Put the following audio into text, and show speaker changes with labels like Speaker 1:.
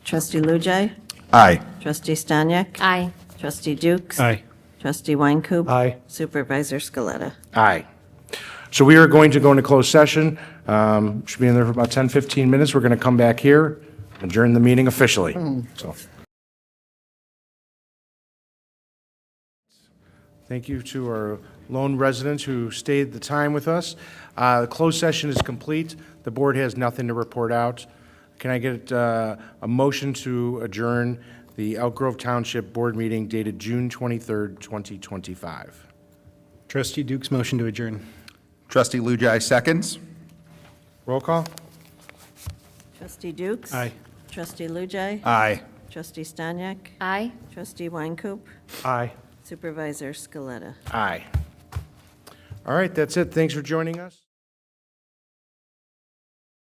Speaker 1: Trustee Lujai.
Speaker 2: Aye.
Speaker 1: Trustee Stanyek.
Speaker 3: Aye.
Speaker 1: Trustee Dukes.
Speaker 4: Aye.
Speaker 1: Trustee Weincoop.
Speaker 4: Aye.
Speaker 1: Supervisor Scaletta.
Speaker 2: Aye. So we are going to go into closed session. Um, Should be in there for about 10, 15 minutes. We're going to come back here, adjourn the meeting officially. So. Thank you to our lone residents who stayed the time with us. Uh, The closed session is complete. The board has nothing to report out. Can I get uh, a motion to adjourn the Elk Grove Township Board meeting dated June 23rd, 2025?
Speaker 4: Trustee Duke's motion to adjourn.
Speaker 5: Trustee Lujai seconds.
Speaker 2: Roll call?
Speaker 1: Trustee Dukes.
Speaker 4: Aye.
Speaker 1: Trustee Lujai.
Speaker 5: Aye.
Speaker 1: Trustee Stanyek.
Speaker 3: Aye.
Speaker 1: Trustee Weincoop.
Speaker 4: Aye.
Speaker 1: Supervisor Scaletta.
Speaker 2: Aye. All right, that's it. Thanks for joining us.